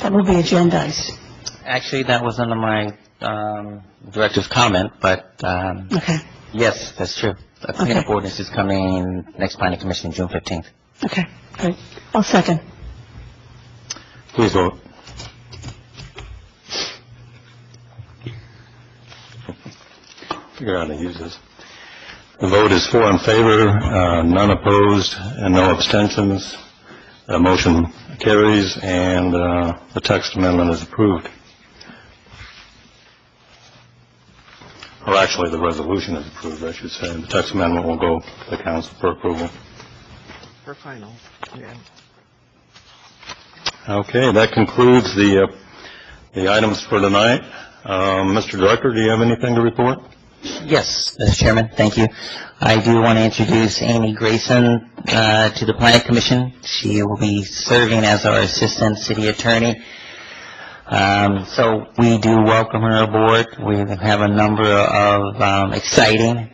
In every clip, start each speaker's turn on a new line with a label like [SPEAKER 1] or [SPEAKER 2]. [SPEAKER 1] That will be agendized.
[SPEAKER 2] Actually, that was under my um, director's comment, but um,
[SPEAKER 1] Okay,
[SPEAKER 2] yes, that's true. A cleanup ordinance is coming next planning commission, June 15th.
[SPEAKER 1] okay, great. I'll second.
[SPEAKER 2] Please vote.
[SPEAKER 3] Figure out how to use this. The vote is four in favor, uh, none opposed, and no abstentions. The motion carries, and uh, the text amendment is approved. Or actually, the resolution is approved, I should say. The text amendment will go to the council for approval.
[SPEAKER 4] For final, yeah.
[SPEAKER 3] Okay, that concludes the, uh, the items for tonight. Um, Mr. Director, do you have anything to report?
[SPEAKER 2] Yes, Mr. Chairman, thank you. I do want to introduce Amy Grayson uh, to the planning commission. She will be serving as our assistant city attorney. Um, So we do welcome her aboard. We have a number of um, exciting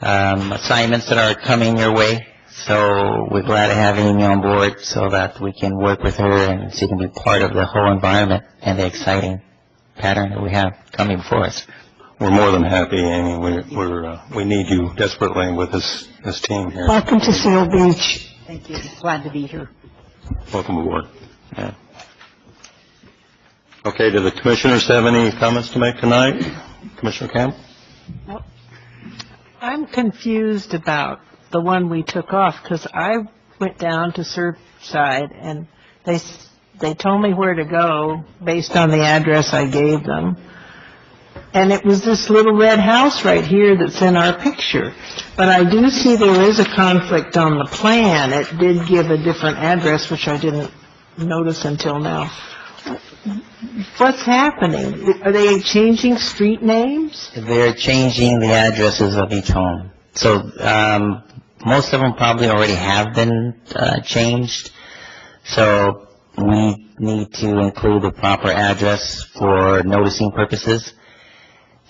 [SPEAKER 2] um, assignments that are coming your way, so we're glad to have Amy on board so that we can work with her and she can be part of the whole environment and the exciting pattern that we have coming before us.
[SPEAKER 3] We're more than happy, Amy. We're- We're, uh, we need you desperately with this, this team here.
[SPEAKER 1] Welcome to Seal Beach.
[SPEAKER 5] Thank you. Glad to be here.
[SPEAKER 3] Welcome aboard. Yeah. Okay, do the commissioners have any comments to make tonight? Commissioner Camp?
[SPEAKER 6] I'm confused about the one we took off, because I went down to Surfside, and they, s- they told me where to go based on the address I gave them. And it was this little red house right here that's in our picture. But I do see there is a conflict on the plan. It did give a different address, which I didn't notice until now. What's happening? Are they changing street names?
[SPEAKER 2] They're changing the addresses of each home. So um, most of them probably already have been uh, changed. So we need to include the proper address for noticing purposes.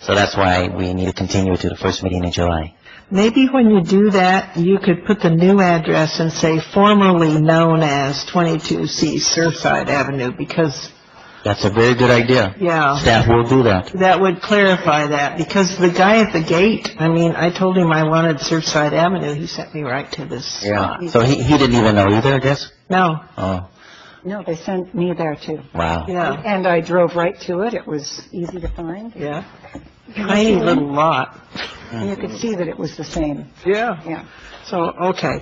[SPEAKER 2] So that's why we need to continue to the first meeting in July.
[SPEAKER 6] Maybe when you do that, you could put the new address and say formerly known as 22C Surfside Avenue, because,
[SPEAKER 2] That's a very good idea.
[SPEAKER 6] yeah,
[SPEAKER 2] Staff will do that.
[SPEAKER 6] that would clarify that, because the guy at the gate, I mean, I told him I wanted Surfside Avenue, he sent me right to this.
[SPEAKER 2] Yeah. So he he didn't even know either, I guess?
[SPEAKER 6] No,
[SPEAKER 2] Oh,
[SPEAKER 5] No, they sent me there too.
[SPEAKER 2] wow.
[SPEAKER 1] Oh.
[SPEAKER 6] yeah,
[SPEAKER 5] And I drove right to it. It was easy to find.
[SPEAKER 6] yeah. Tiny little lot.
[SPEAKER 1] Uh-huh.
[SPEAKER 5] And you could see that it was the same.
[SPEAKER 6] Yeah.
[SPEAKER 5] Yeah.
[SPEAKER 6] So, okay,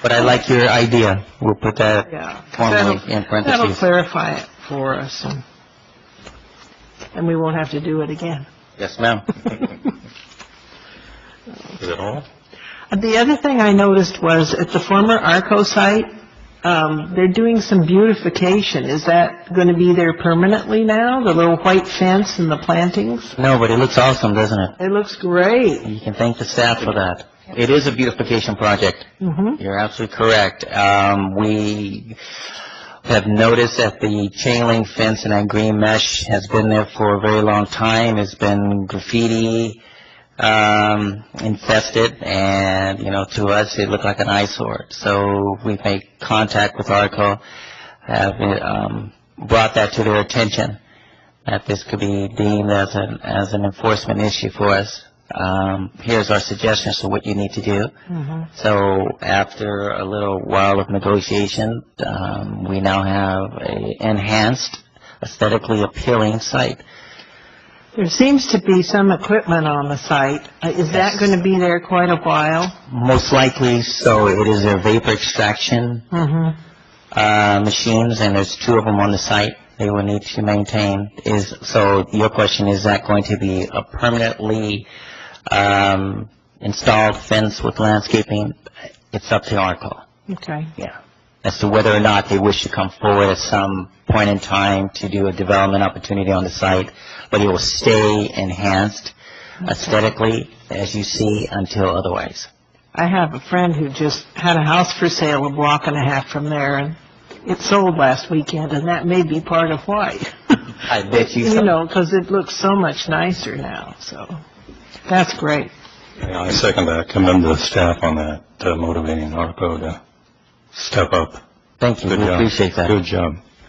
[SPEAKER 2] But I like your idea. We'll put that
[SPEAKER 6] yeah.
[SPEAKER 2] formally
[SPEAKER 6] That'll-
[SPEAKER 2] in
[SPEAKER 6] That'll
[SPEAKER 2] parentheses.
[SPEAKER 6] clarify it for us, and, and we won't have to do it again.
[SPEAKER 2] Yes, ma'am.
[SPEAKER 3] Is it all?
[SPEAKER 6] The other thing I noticed was at the former Arco site, um, they're doing some beautification. Is that going to be there permanently now, the little white fence and the plantings?
[SPEAKER 2] No, but it looks awesome, doesn't it?
[SPEAKER 6] It looks great.
[SPEAKER 2] You can thank the staff for that. It is a beautification project.
[SPEAKER 6] hmm
[SPEAKER 2] You're absolutely correct. Um, we have noticed that the chain link fence and that green mesh has been there for a very long time. It's been graffiti, um, infested, and, you know, to us, it looked like an eyesore. So we've made contact with ARCO, have, um, brought that to their attention, that this could be deemed as an, as an enforcement issue for us. Um, here's our suggestions for what you need to do. So after a little while of negotiation, um, we now have a enhanced, aesthetically appealing site.
[SPEAKER 6] There seems to be some equipment on the site. Uh, Is that going to be there quite a while?
[SPEAKER 2] Most likely, so it is a vapor extraction,
[SPEAKER 6] Mm-hmm.
[SPEAKER 2] uh, machines, and there's two of them on the site they will need to maintain. Is, so your question, is that going to be a permanently, um, installed fence with landscaping? It's up to ARCO.
[SPEAKER 6] Okay.
[SPEAKER 2] Yeah, as to whether or not they wish to come forward at some point in time to do a development opportunity on the site, but it will stay enhanced aesthetically, as you see, until otherwise.
[SPEAKER 6] I have a friend who just had a house for sale a block and a half from there, and it sold last weekend, and that may be part of why.
[SPEAKER 2] I bet you
[SPEAKER 6] You
[SPEAKER 2] so.
[SPEAKER 6] know, because it looks so much nicer now, so, that's great.
[SPEAKER 3] Yeah, I second that. Commend the staff on that, uh, motivating ARPO to step up.
[SPEAKER 2] Thank you,
[SPEAKER 3] Good
[SPEAKER 2] we
[SPEAKER 3] job.
[SPEAKER 2] appreciate that.
[SPEAKER 3] Good job.